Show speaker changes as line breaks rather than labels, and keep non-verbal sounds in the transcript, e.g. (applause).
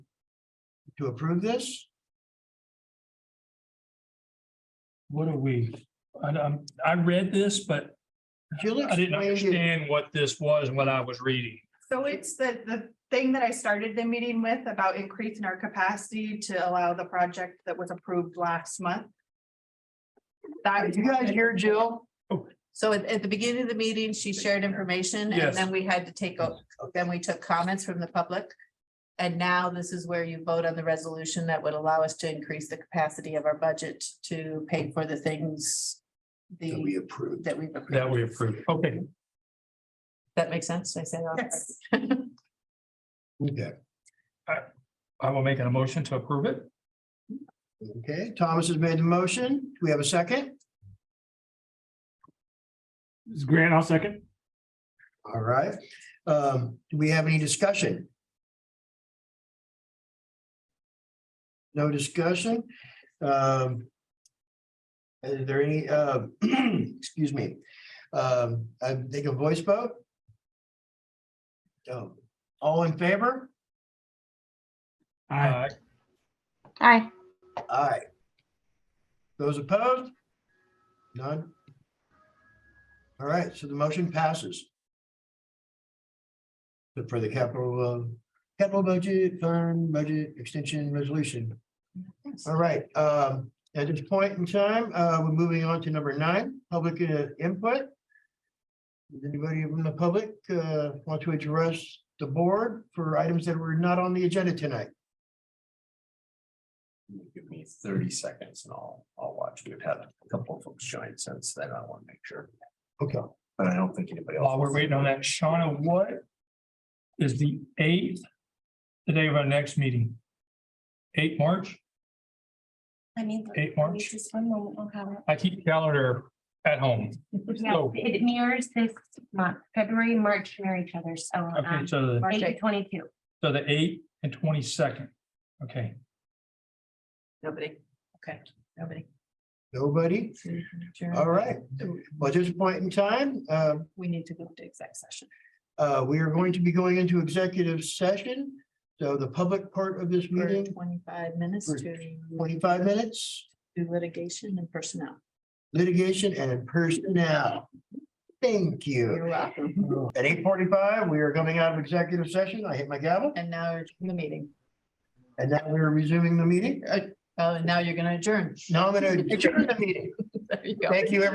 to approve this?
What are we? I, I'm- I read this, but
Jill
I
explained
didn't
it.
understand what this was and what I was reading.
So it's the, the thing that I started the meeting with about increasing our capacity to allow the project that was approved last month. That,
Did you guys hear Jill?
So at, at the beginning of the meeting, she shared information
Yes.
and then we had to take, o- then we took comments from the public. And now this is where you vote on the resolution that would allow us to increase the capacity of our budget to pay for the things.
That we
The,
approved.
that we,
That we approved. Okay,
that makes sense, Did I say. that?
Yes.
Okay,
I will make a motion to approve it.
okay, Thomas has made the motion. Do we have a second?
This is Grant, I'll second.
All right. Um, do we have any discussion? No discussion? Um. Is there any, uh, (clears throat) excuse me, um, I think a voice vote? Oh, all in favor?
Aye.
Aye.
Aye. Those opposed? None? All right, so the motion passes. But For the capital, uh, capital budget, fund budget extension resolution. All right, um, at this point in time, uh, we're moving on to number nine, public uh, input. Does anybody from the public, uh, want to address the board for items that were not on the agenda tonight?
Give me thirty seconds and I'll, I'll watch. We've had a couple of folks join since then. I want to make sure,
Okay.
but I don't think anybody else.
While we're waiting on that, Shauna, what is the eighth, the day of our next meeting? Eight March?
I mean.
Eight March?
Just one moment, I'll have it.
I keep calendar at home.
Yeah,
So-
It mirrors this month, February, March mirror each other, so
Okay,
um,
so the,
eight to twenty-two.
so the eighth and twenty-second. Okay,
Nobody, okay, nobody.
Nobody? All right, well, at this point in time, uh,
We need to go to exec session.
uh, we are going to be going into executive session. So the public part of this
for
meeting,
Twenty-five minutes
For
to
twenty-five minutes,
do litigation and personnel.
litigation and personnel. Thank you.
You're welcome.
At eight forty-five, we are coming out of executive session. I hit my gavel
And now you're in the meeting.
and now we are resuming the meeting.
Uh, Oh, and now you're gonna adjourn.
Now I'm going to adjourn the meeting.
(laughs) There you go.
Thank you, everyone.